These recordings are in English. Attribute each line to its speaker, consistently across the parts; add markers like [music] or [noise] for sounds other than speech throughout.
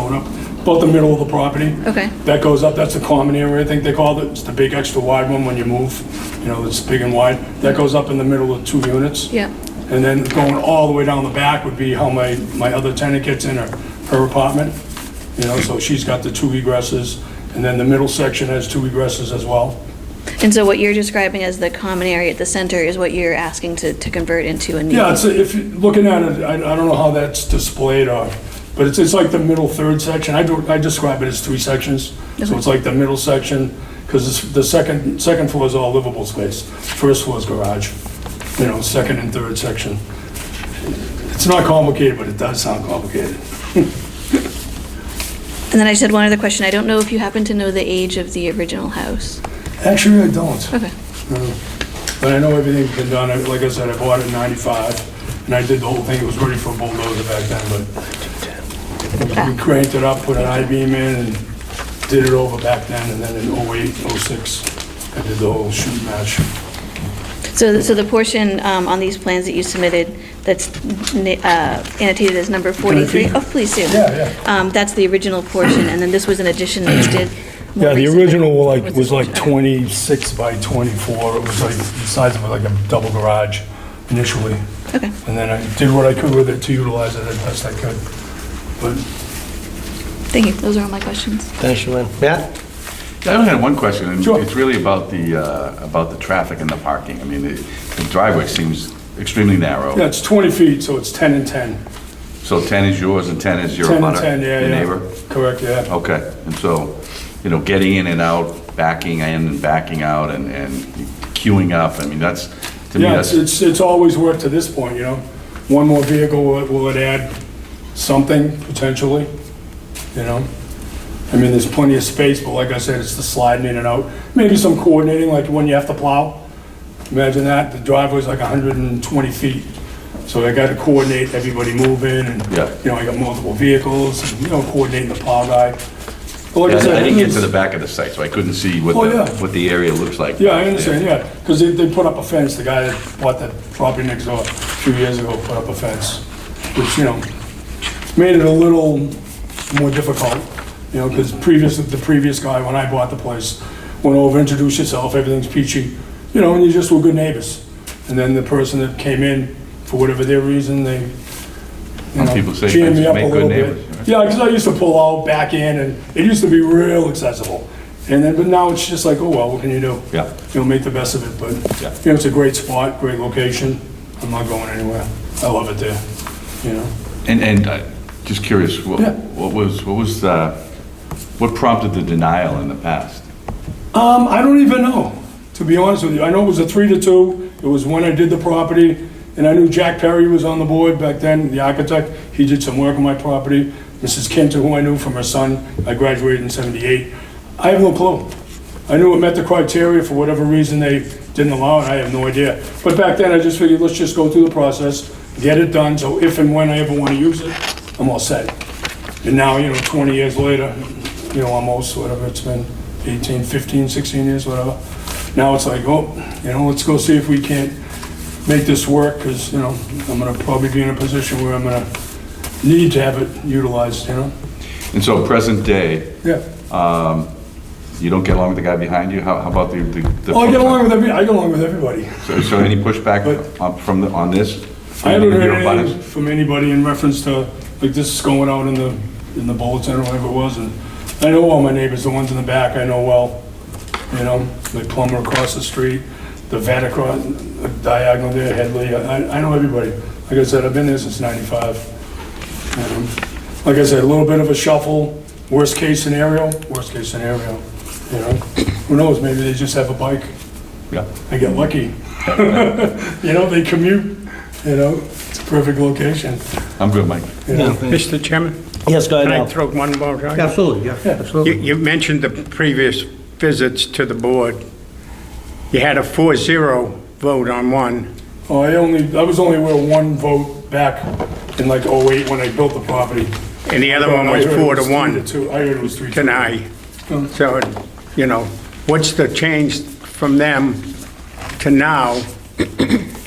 Speaker 1: going up, about the middle of the property.
Speaker 2: Okay.
Speaker 1: That goes up, that's the common area, I think they called it. It's the big extra wide one when you move, you know, it's big and wide. That goes up in the middle of two units.
Speaker 2: Yeah.
Speaker 1: And then going all the way down the back would be how my, my other tenant gets in her, her apartment. You know, so she's got the two egresses, and then the middle section has two egresses as well.
Speaker 2: And so what you're describing as the common area at the center is what you're asking to, to convert into a new?
Speaker 1: Yeah, it's, if, you- looking at it, I, I don't know how that's displayed or, but it's, it's like the middle third section. I do, I describe it as three sections. So it's like the middle section, because the second, second floor is all livable space. First floor is garage, you know, second and third section. It's not complicated, but it does sound complicated.
Speaker 2: And then I just had one other question. I don't know if you happen to know the age of the original house.
Speaker 1: Actually, I don't.
Speaker 2: Okay.
Speaker 1: But I know everything's been done, I- like I said, I bought it in 95, and I did the whole thing, it was ready for a bulldozer back then, but we cranked it up, put an I-beam in, and did it over back then, and then in 08, 06, I did the whole shoot match.
Speaker 2: So, so the portion um, on these plans that you submitted that's na- uh, annotated as number 43?
Speaker 1: repeat?
Speaker 2: Oh, please do.
Speaker 1: Yeah, yeah.
Speaker 2: Um, That's the original portion, and then this was an addition that you did? more
Speaker 1: Yeah, the
Speaker 2: recently.
Speaker 1: original wa- like,
Speaker 2: What's
Speaker 1: was like
Speaker 2: this portion?
Speaker 1: 26 by 24, it was like the size of like a double garage initially.
Speaker 2: Okay.
Speaker 1: And then I did what I could with it to utilize it as best I could. But
Speaker 2: Thank you. Those are all my questions.
Speaker 3: Thanks, Joanne. Matt?
Speaker 4: I only had one question, and
Speaker 1: Sure.
Speaker 4: it's really about the, uh, about the traffic and the parking. I mean, the the driveway seems extremely
Speaker 1: Yeah,
Speaker 4: narrow.
Speaker 1: it's 20 feet, so it's 10 and 10.
Speaker 4: So 10 is yours and 10 is your
Speaker 1: 10 and
Speaker 4: abutter,
Speaker 1: 10, yeah, yeah.
Speaker 4: your neighbor? Oh,
Speaker 1: Correct, yeah.
Speaker 4: Okay, and so, you know, getting in and out, backing in and backing out and and queuing up, I mean, that's, to me,
Speaker 1: Yeah, it's-
Speaker 4: that's,
Speaker 1: it's, it's always worked to this point, you know? One more vehicle, will it- will it add something potentially, you know? I mean, there's plenty of space, but like I said, it's the sliding in and out. Maybe some coordinating, like when you have to plow. Imagine that, the driveway's like 120 feet. So I got to coordinate everybody moving and,
Speaker 4: Yeah.
Speaker 1: you know, I got multiple vehicles, and, you know, coordinating the plow guy. But like
Speaker 4: I
Speaker 1: said,
Speaker 4: I didn't get to
Speaker 1: it's-
Speaker 4: the back of the site, so I couldn't see what
Speaker 1: Oh,
Speaker 4: the,
Speaker 1: yeah.
Speaker 4: what the area looks like.
Speaker 1: Yeah, I understand, yeah, because they, they put up a fence, the guy that bought that property next door a few years ago put up a fence, which, you know, made it a little more difficult, you know, because previous, the previous guy, when I bought the place, went over, introduced himself, everything's peachy, you know, and you just were good neighbors. And then the person that came in, for whatever their reason, they, you
Speaker 4: Some
Speaker 1: know,
Speaker 4: people say
Speaker 1: jammed me
Speaker 4: fences
Speaker 1: up a
Speaker 4: make good
Speaker 1: little bit.
Speaker 4: neighbors, right?
Speaker 1: Yeah, because I used to pull out, back in, and it used to be real accessible. And then, but now it's just like, oh, well, what can you do?
Speaker 4: Yeah.
Speaker 1: You know, make the best of it, but,
Speaker 4: Yeah.
Speaker 1: you know, it's a great spot, great location. I'm not going anywhere. I love it there, you know?
Speaker 4: And, and uh, just curious, what
Speaker 1: Yeah.
Speaker 4: what was, what was, uh, what prompted the denial in the past?
Speaker 1: Um, I don't even know, to be honest with you. I know it was a three to two. It was when I did the property, and I knew Jack Perry was on the board back then, the architect. He did some work on my property. Mrs. Kinter, who I knew from her son, I graduated in '78. I have no clue. I knew it met the criteria. For whatever reason, they didn't allow it. I have no idea. But back then, I just figured, let's just go through the process, get it done, so if and when I ever want to use it, I'm all set. And now, you know, 20 years later, you know, almost, whatever, it's been 18, 15, 16 years, whatever. Now it's like, oh, you know, let's go see if we can't make this work, because, you know, I'm gonna probably be in a position where I'm gonna need to have it utilized, you know?
Speaker 4: And so present day,
Speaker 1: Yeah.
Speaker 4: you don't get along with the guy behind you? How how about the? the- the-
Speaker 1: Oh, I get along with every, I get along with everybody.
Speaker 4: So- So any pushback
Speaker 1: But-
Speaker 4: on- from, the- on this?
Speaker 1: I haven't
Speaker 4: Your
Speaker 1: heard
Speaker 4: butters?
Speaker 1: anything from anybody in reference to, like, this is going out in the, in the bulletin or whatever it was, and I know all my neighbors, the ones in the back, I know well, you know, the plumber across the street, the vet across, diagonal there, Headley, I, I know everybody. Like I said, I've been there since ninety-five. Um, Like I said, a little bit of a shuffle, worst-case scenario, worst-case scenario, you know? Who knows, maybe they just have a bike,
Speaker 4: Yeah.
Speaker 1: I get lucky. [laughs] You know, they commute, you know, it's a perfect location.
Speaker 4: I'm good, Mike.
Speaker 1: you know.
Speaker 5: Mr. Chairman,
Speaker 3: Yes, go
Speaker 5: can I
Speaker 3: ahead, Al.
Speaker 5: throw one more? out?
Speaker 3: Absolutely, yeah,
Speaker 5: You
Speaker 3: absolutely.
Speaker 5: you mentioned the previous visits to the board. You had a 4-0 vote on one.
Speaker 1: Oh, I only, I was only aware of one vote back in like '08 when I built the property.
Speaker 5: And the other one
Speaker 1: I
Speaker 5: was
Speaker 1: heard it
Speaker 5: four to
Speaker 1: three
Speaker 5: one
Speaker 1: two. I heard it was three to
Speaker 5: tonight. So, you know, what's the change from them to now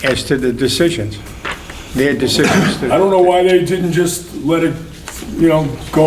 Speaker 5: as to the decisions? Their decisions to...
Speaker 1: I don't know why they didn't just let it, you know, go